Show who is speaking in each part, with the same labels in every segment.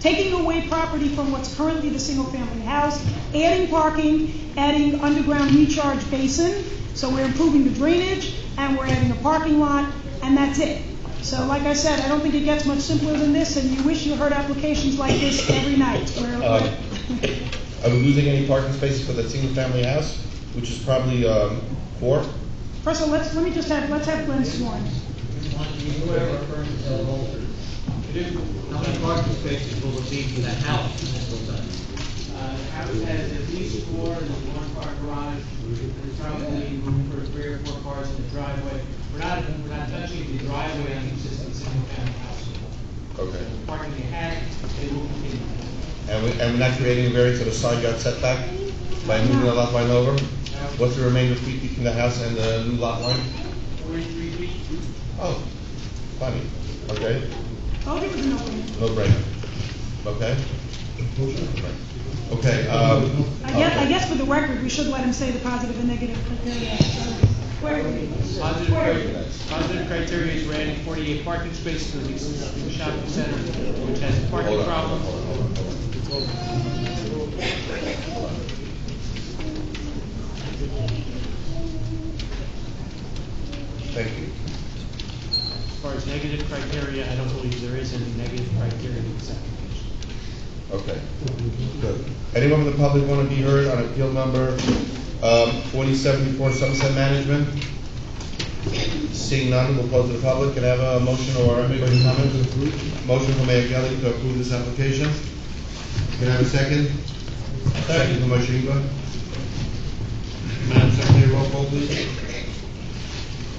Speaker 1: taking away property from what's currently the single-family house, adding parking, adding underground recharge basin, so we're improving the drainage, and we're adding a parking lot, and that's it. So like I said, I don't think it gets much simpler than this, and you wish you heard applications like this every night,
Speaker 2: Um,
Speaker 1: where,
Speaker 2: Are we losing any parking spaces for that single-family house, which is probably um, four?
Speaker 1: first of all, let's, let me just have, let's have Glenn sworn.
Speaker 3: Whoever firms the holder. How many parking spaces will it be for that house when it's all done?
Speaker 4: Uh, the house has at least four, there's one car garage, there's probably room for three or four cars in the driveway. We're not, we're not touching the driveway on the existing single-family house.
Speaker 2: Okay.
Speaker 4: The Parking they had, they will continue.
Speaker 2: And we, and we're not creating a variance of the side yard setback by moving the lot line over? What's the remainder feet between the house and the new lot line?
Speaker 4: Forty-three feet,
Speaker 2: Oh, funny, okay,
Speaker 1: I'll give it Oh, an opening.
Speaker 2: no brainer, okay? Okay, um.
Speaker 1: I guess, I guess for the record, we should let him say the positive and negative criteria. Where are we?
Speaker 4: Positive criteria, positive criteria is we're adding forty-eight parking spaces to the existing shopping center, which has a
Speaker 2: Hold
Speaker 4: parking
Speaker 2: on,
Speaker 4: problem.
Speaker 2: hold on, hold on, hold on. Thank you.
Speaker 4: As far as negative criteria, I don't believe there is any negative criteria in this application.
Speaker 2: Okay, good. Anyone from the public want to be heard on appeal number um, 4074 Sunset Management? Seeing none, we'll close to the public. Can I have a motion or anybody comment? Motion from Mayor Gelli to approve this application. Can I have a second? Second from Moshe Ingber. Madam Secretary, roll call please.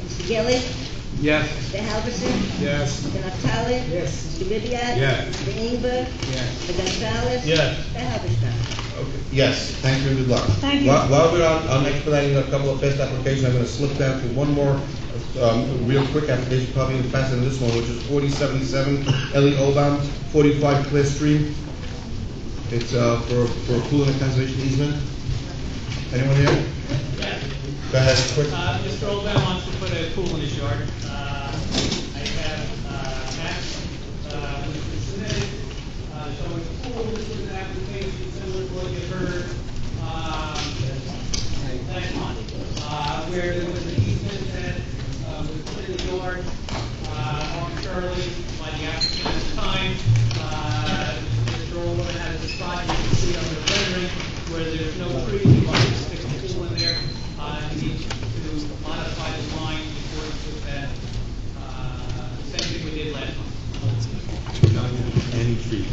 Speaker 5: Mr. Gilli?
Speaker 3: Yes.
Speaker 5: Mr. Halverson?
Speaker 3: Yes.
Speaker 5: Mr. Naftali?
Speaker 3: Yes.
Speaker 5: Mr. Ribbiat?
Speaker 3: Yes.
Speaker 5: Mr. Inger?
Speaker 3: Yes.
Speaker 5: Mr. Gonzalez?
Speaker 3: Yes.
Speaker 5: Mr. Halverson?
Speaker 2: Okay. Yes, thank you, and good luck.
Speaker 1: Thank you.
Speaker 2: While while we're on, on expediting a couple of fast applications, I'm gonna slip down to one more, um, real quick application, probably even faster than this one, which is forty seventy-seven Ellie Obam, forty-five Clear Stream. It's, uh, for, for a pool and a conservation easement. Anyone here? Go ahead, quick.
Speaker 4: Uh, Mr. Oldman wants to put a pool in his yard. Uh, I have, uh, maps, uh, which were submitted, uh, showing the pool, this was an application similar to what you heard, um, last month, uh, where there was an easement that, uh, was put in the yard, uh, arbitrarily by the applicant at the time. Uh, Mr. Oldman has a spot, you can see on the rendering, where there's no trees, you might stick a pool in there. Uh, you need to modify the line in accordance with that, uh, same thing we did last month.
Speaker 2: Any trees.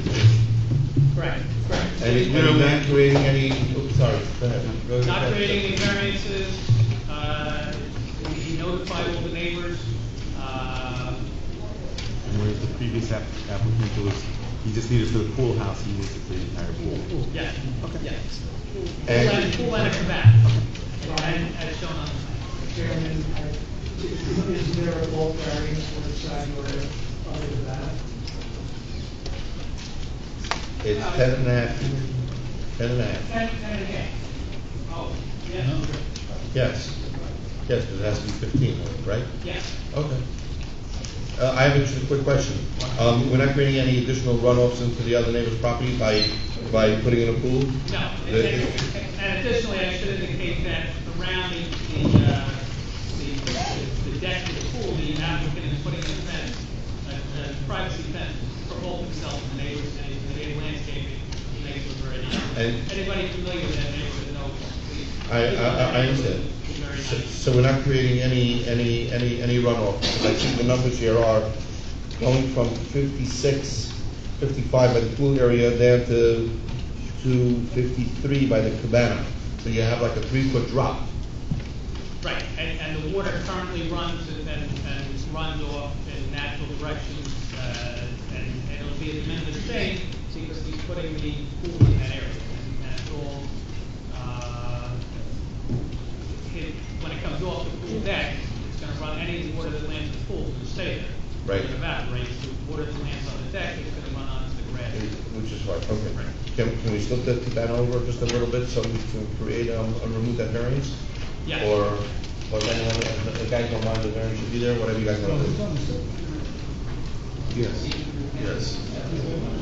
Speaker 4: Correct, correct.
Speaker 2: And it- and not creating any, oops, sorry, go ahead. Go ahead.
Speaker 4: Not creating any variances, uh, we notified all the neighbors, uh,
Speaker 6: Whereas the previous app- applicant was, he just needed for the pool house, he needs the entire pool.
Speaker 4: yeah, yeah. We'll let,
Speaker 2: And-
Speaker 4: we'll let it come back, and, as shown on the plan.
Speaker 7: Chairman, I- is there a bulk variance for the side yard other than that?
Speaker 2: It's ten and a half, ten and a half.
Speaker 4: Ten, ten again. Oh, yeah,
Speaker 2: Yes, yes, but it has to be fifteen, right?
Speaker 4: yeah.
Speaker 2: Okay. Uh, I have a just a quick question. Um, we're not creating any additional runoffs into the other neighbor's property by, by putting in a pool?
Speaker 4: No, and
Speaker 2: The-
Speaker 4: and additionally, I should indicate that around the, the, uh, the, the deck of the pool, the applicant is putting in a fence, a, a privacy fence for both himself and the neighbors, and the neighbor landscaping, the neighbors are already.
Speaker 2: And-
Speaker 4: Anybody familiar with that neighborhood knows.
Speaker 2: I, I, I understand.
Speaker 4: Very
Speaker 2: So,
Speaker 4: nice.
Speaker 2: so we're not creating any, any, any, any runoff? Because I think the numbers here are going from 56, 55 by the pool area down to, to fifty-three by the cabana. So you have like a three-foot drop.
Speaker 4: Right, and, and the water currently runs and, and and runs off in natural directions, uh, and, and it'll be a de minimis thing, because he's putting the pool in that area, and that's all, uh, it, when it comes off the pool deck, it's gonna run, any water that lands in the pool will stay there.
Speaker 2: Right.
Speaker 4: It evaporates, the water that lands on the deck is gonna run onto the grass.
Speaker 2: Which is right, okay. Can, can we slip that, that over just a little bit so we can create, um, and remove that variance?
Speaker 4: Yeah.
Speaker 2: Or, or if anyone, if the guys don't mind, the variance should be there, whatever you guys want to do. Yes. Yes.